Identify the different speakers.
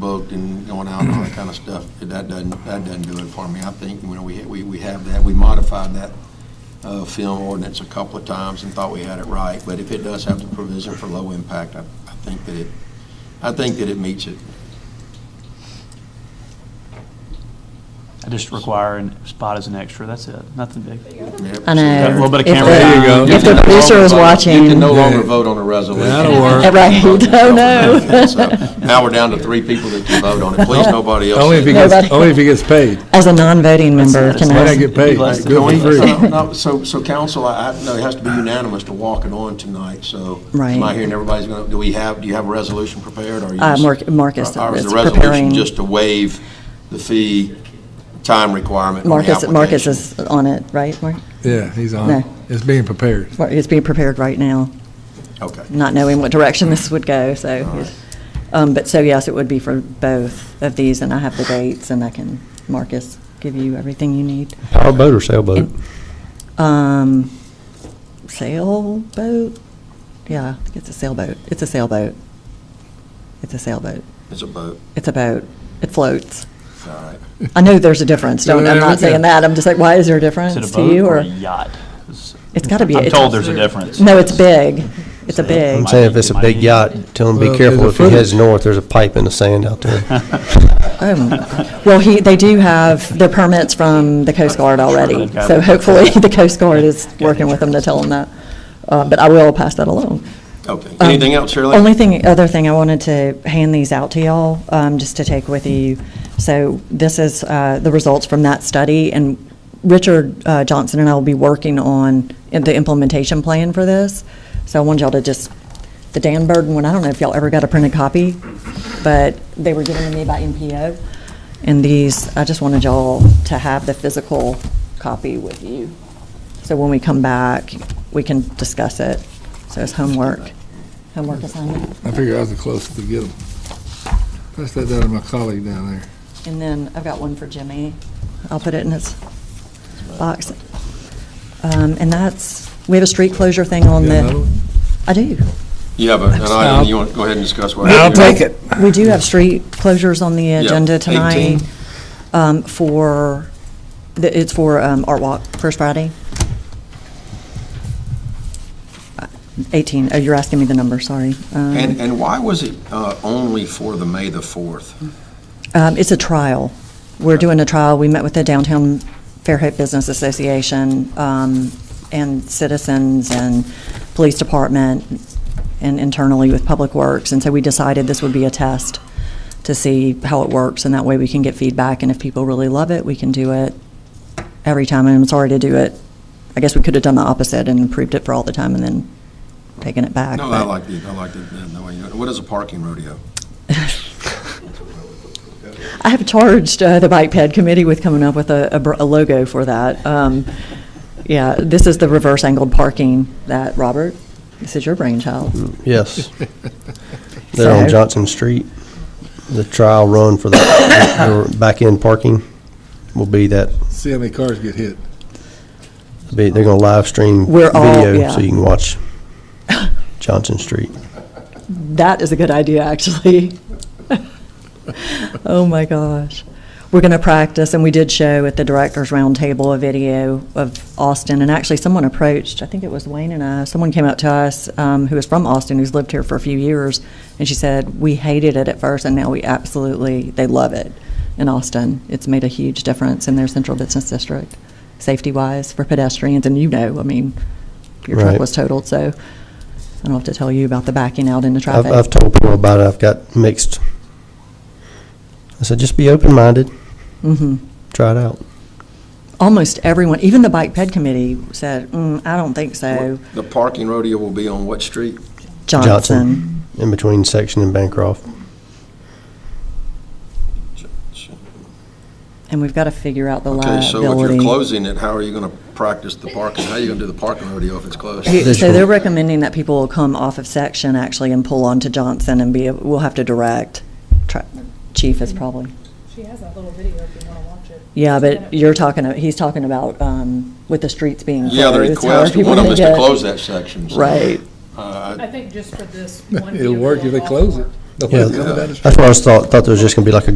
Speaker 1: booked and going out and all that kind of stuff, that doesn't, that doesn't do it for me. I think, you know, we, we, we have that, we modified that, uh, film ordinance a couple of times and thought we had it right, but if it does have the provision for low impact, I, I think that it, I think that it meets it.
Speaker 2: I just require a spot as an extra, that's it, nothing big.
Speaker 1: Yep.
Speaker 3: I know.
Speaker 2: Got a little bit of
Speaker 3: If
Speaker 2: camera
Speaker 3: the-
Speaker 2: there you
Speaker 4: go.
Speaker 3: If the producer was
Speaker 1: You can
Speaker 3: watching,
Speaker 1: no longer vote on a resolution.
Speaker 4: That'll work.
Speaker 3: Right. Oh, no.
Speaker 1: So, Now we're down to three people that can vote on it. Please, nobody else.
Speaker 4: Only if he gets,
Speaker 3: Nobody.
Speaker 4: only if he gets paid.
Speaker 3: as a non-voting member,
Speaker 2: That's-
Speaker 3: can
Speaker 4: Why not
Speaker 3: I,
Speaker 4: get paid?
Speaker 2: Less than
Speaker 4: Good for free.
Speaker 1: No, no, So, so council, I, I- no, it has to be unanimous to walk it on tonight, so. Am I
Speaker 3: Right.
Speaker 1: hearing everybody's going to, do we have, do you have a resolution prepared, or? are you
Speaker 3: Uh,
Speaker 1: just-
Speaker 3: Mark- Marcus
Speaker 1: Or is
Speaker 3: is
Speaker 1: the resolution
Speaker 3: preparing-
Speaker 1: just to waive the fee time requirement on the
Speaker 3: Marcus, Marcus
Speaker 1: application?
Speaker 3: is on it, right? Mark?
Speaker 4: Yeah, he's on. it.
Speaker 3: No.
Speaker 4: It's being prepared.
Speaker 3: Mark is being prepared right now,
Speaker 1: Okay.
Speaker 3: not knowing what direction this would go, so. Um, but so yes, it would be for both of these, and I have the dates, and I can, Marcus, give you everything you need.
Speaker 5: Powerboat or sailboat?
Speaker 3: Um, sailboat? Yeah, I think it's a sailboat. It's a sailboat. It's a sailboat.
Speaker 1: It's a vote,
Speaker 3: It's a boat. It floats.
Speaker 1: all right.
Speaker 3: I know there's a difference. Don't, I'm not saying that. I'm just like, why is there a
Speaker 2: Is
Speaker 3: difference
Speaker 2: it a
Speaker 3: to
Speaker 2: boat
Speaker 3: you?
Speaker 2: or
Speaker 3: Or,
Speaker 2: a yacht?
Speaker 3: It's gotta be-
Speaker 2: I'm
Speaker 3: it's-
Speaker 2: told there's a difference.
Speaker 3: no, it's big. It's a
Speaker 2: So-
Speaker 3: big.
Speaker 5: I'm saying if it's a big yacht, tell them
Speaker 4: Well,
Speaker 5: be
Speaker 4: there's
Speaker 5: careful
Speaker 4: a
Speaker 5: if he heads
Speaker 4: footage.
Speaker 5: north, there's a pipe in the sand out there.
Speaker 3: Oh, my God. Well, he, they do have the permits from the Coast Guard already.
Speaker 2: Okay.
Speaker 3: So hopefully the Coast Guard is
Speaker 2: Got
Speaker 3: working with them to tell them that. Uh, but I will pass that along.
Speaker 1: Okay. Anything else, Shirley?
Speaker 3: Um, Only thing, other thing, I wanted to hand these out to y'all, um, just to take with you. So this is, uh, the results from that study, and Richard, uh, Johnson and I will be working on the implementation plan for this. So I wanted y'all to just, the Dan Burden one, I don't know if y'all ever got a printed copy, but they were given to me by NPO. And these, I just wanted y'all to have the physical copy with you. So when we come back, we can discuss it. So it's homework, homework assignment.
Speaker 4: I figure I was the closest to get him. Pass that down to my colleague down there.
Speaker 3: And then I've got one for Jimmy. I'll put it in his box. Um, And that's, we have a street closure thing on
Speaker 4: You got
Speaker 3: the,
Speaker 4: another one?
Speaker 3: I do.
Speaker 1: You have a- an item, you want to go ahead and discuss what?
Speaker 4: I'll take it.
Speaker 3: We do have street closures on the agenda
Speaker 1: 18.
Speaker 3: tonight um, for, the- it's for um, Art Walk, First Friday. Uh, 18, oh, you're asking me the number, sorry. Um,
Speaker 1: And, and why was it uh, only for the May the 4th?
Speaker 3: Um, It's a trial. We're doing a trial. We met with the Downtown Fairhope Business Association um, and citizens and police department and internally with Public Works. And so we decided this would be a test to see how it works. And that way we can get feedback. And if people really love it, we can do it every time. And I'm sorry to do it. I guess we could have done the opposite and improved it for all the time and then taken it back.
Speaker 1: No, I
Speaker 3: but-
Speaker 1: like the, I like the, the way you, what is a parking rodeo?
Speaker 3: I have charged uh, the Bike Ped Committee with coming up with a, a br- a logo for that. Um, yeah, this is the reverse angled parking that, Robert, this is your brainchild.
Speaker 5: Yes.
Speaker 3: So-
Speaker 5: They're on Johnson Street. The trial run for the- the back-end parking will be that,
Speaker 4: See how many cars get hit.
Speaker 5: be- they're going to live stream
Speaker 3: We're all-
Speaker 5: video
Speaker 3: yeah.
Speaker 5: so you can watch Johnson Street.
Speaker 3: That is a good idea, actually. oh my gosh. We're going to practice, and we did show at the Directors Roundtable a video of Austin. And actually, someone approached, I think it was Wayne and I, someone came up to us um, who was from Austin, who's lived here for a few years. And she said, We hated it at first, and now we absolutely, they love it in Austin. It's made a huge difference in their central business district, safety wise, for pedestrians. And you know, I mean, your truck
Speaker 5: Right.
Speaker 3: was totaled, so I don't have to tell you about the backing out into
Speaker 5: I've,
Speaker 3: traffic.
Speaker 5: I've told people about it. I've got mixed. I said, just be open-minded.
Speaker 3: Mhm.
Speaker 5: Try it out.
Speaker 3: Almost everyone, even the Bike Ped Committee said, mm, I don't think so.
Speaker 1: The parking rodeo will be on what street?
Speaker 3: Johnson.
Speaker 5: In between Section and Bancroft.
Speaker 3: And we've got to figure out the
Speaker 1: Okay, so if you're
Speaker 3: liability.
Speaker 1: closing it, how are you going to practice the parking? How are you going to do the parking rodeo if it's closed?
Speaker 3: He- So
Speaker 5: Visual.
Speaker 3: they're recommending that people will come off of Section actually and pull onto Johnson and be, we'll have to direct. Tra- Chief is probably,
Speaker 6: She has that little video if you want to watch it.
Speaker 3: yeah, but you're talking, he's talking about um, with the streets being closed.
Speaker 1: Yeah, the
Speaker 3: how are
Speaker 1: request,
Speaker 3: people
Speaker 1: one of them
Speaker 3: gonna
Speaker 1: is to
Speaker 3: get-
Speaker 1: close that section. so,
Speaker 3: Right.
Speaker 1: uh,
Speaker 6: I think just for this one.
Speaker 4: It'll work if
Speaker 6: vehicle
Speaker 4: they close
Speaker 6: off
Speaker 4: it.
Speaker 6: work,
Speaker 5: Yeah,
Speaker 4: Come down the
Speaker 5: That's what I was thought, thought there was just gonna be like a